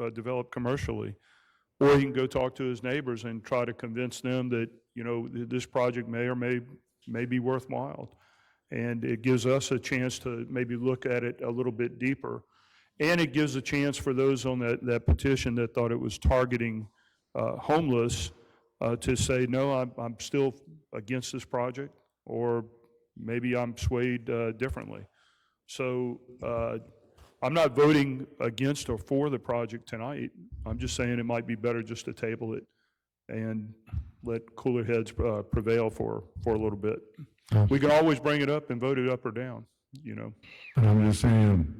uh, developed commercially. Or he can go talk to his neighbors and try to convince them that, you know, th- this project may or may, may be worthwhile. And it gives us a chance to maybe look at it a little bit deeper. And it gives a chance for those on that, that petition that thought it was targeting uh, homeless uh, to say, no, I'm, I'm still against this project, or maybe I'm swayed uh, differently. So uh, I'm not voting against or for the project tonight. I'm just saying it might be better just to table it and let cooler heads uh, prevail for, for a little bit. We can always bring it up and vote it up or down, you know? But I'm just saying,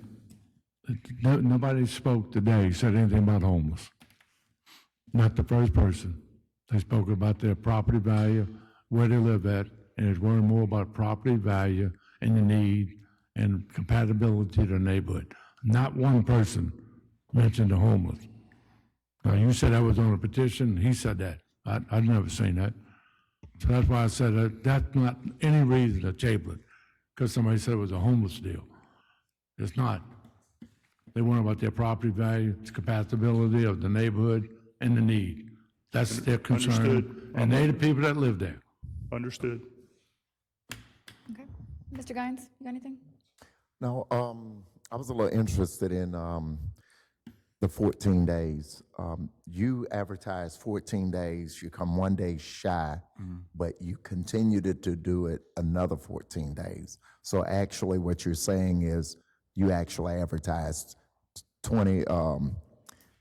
it- no- nobody spoke today, said anything about homeless. Not the first person. They spoke about their property value, where they live at, and it's worrying more about property value and the need and compatibility to the neighborhood. Not one person mentioned the homeless. Now, you said I was on a petition, he said that. I, I've never seen that. So that's why I said that, that's not any reason to table it, because somebody said it was a homeless deal. It's not. They want about their property value, its compatibility of the neighborhood and the need. That's their concern. Understood. And they're the people that live there. Understood. Okay. Mr. Guines, you got anything? Now, um, I was a little interested in, um, the fourteen days. Um, you advertise fourteen days, you come one day shy, but you continued it to do it another fourteen days. So actually, what you're saying is you actually advertised twenty, um,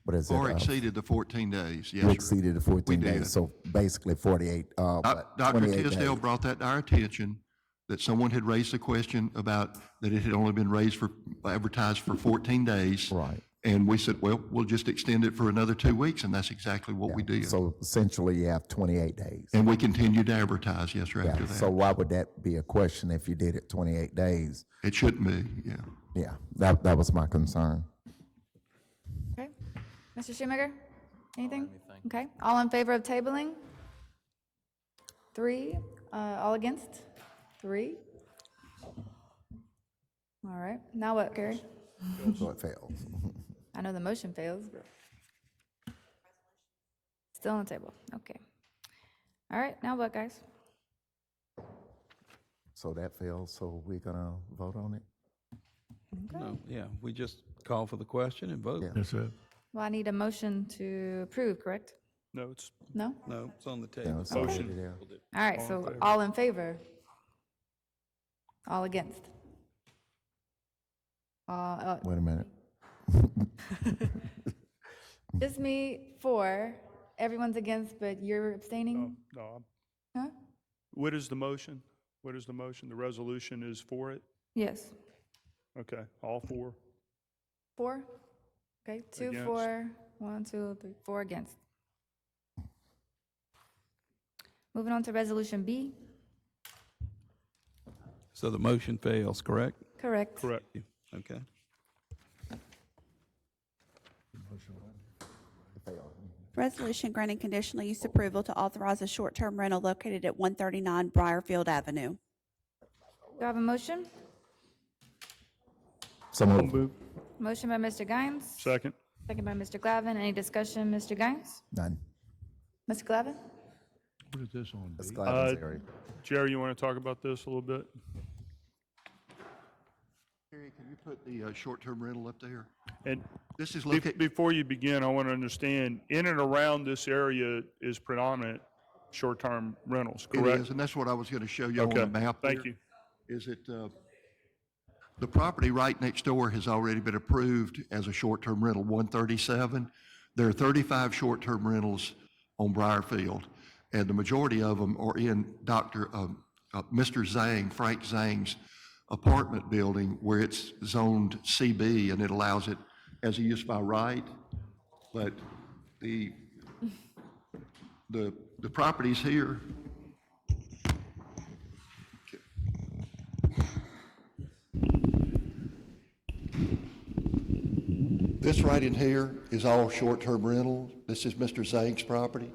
what is it? Or uh, exceeded the 14 days, You yes, sir. exceeded the fourteen did. days, so basically forty-eight, uh, Uh, but Dr. twenty-eight Tisdale days. brought that to our attention, that someone had raised the question about that it had only been raised for, advertised for 14 days. Right. And we said, well, we'll just extend it for another two weeks, and that's exactly what we did. So essentially, you have twenty-eight days. And we continued to advertise, yes, sir, after Yeah, so that. why would that be a question if you did it 28 days? It shouldn't be, yeah. Yeah, that, that was my concern. Okay. Mr. Schumaker, anything? Okay. All in favor of tabling? Three. Uh, all against? Three. All right. Now what, Gary? So it fails. I know the motion fails, but. Still on the table. Okay. All right. Now what, guys? So that fails, so we're gonna vote on it? No, yeah, we just call for the question and vote. Yes, sir. Well, I need a motion to approve, correct? No, it's, No? No, it's on the No, table. it's already Motion. there. All right, so all in favor? All against? Uh, uh, Wait a minute. Just me, four, everyone's against, but you're abstaining? no, I'm- Huh? what is the motion? What is the motion? The resolution is for it? Yes, Okay, all four? four? Okay, two, Against. four, one, two, three, four against. Moving on to Resolution B, So the motion fails, correct? correct? Correct. Yeah, Okay. Resolution granting conditional use approval to authorize a short-term rental located at 139 Briarfield Avenue. Do I have a motion? So moved. Motion by Mr. Guines, Second? second by Mr. Glavin. Any discussion, Mr. Guines? None. Mr. Glavin? What is this on? That's Gladys Uh, area. Jerry, you want to talk about this a little bit? Terry, can you put the uh, short-term rental up there? And This is Be- located, Before you begin, I want to understand, in and around this area is predominant short-term rentals, it is, correct? and that's what I was going to show you on Okay, the map. Thank there. you. Is it, uh, the property right next door has already been approved as a short-term rental, 137. There are 35 short-term rentals on Briarfield, and the majority of them are in Dr., um, uh, Mr. Zhang, Frank Zhang's apartment building where it's zoned CB and it allows it as a use by right. But the, the, the properties here, This right in here is all short-term rental. This is Mr. Zhang's property.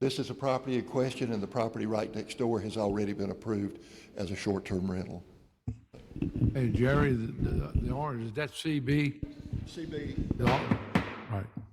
This is a property in question, and the property right next door has already been approved as a short-term rental. Hey, Jerry, the, the- the orange, is that CB? CB, The or- Right.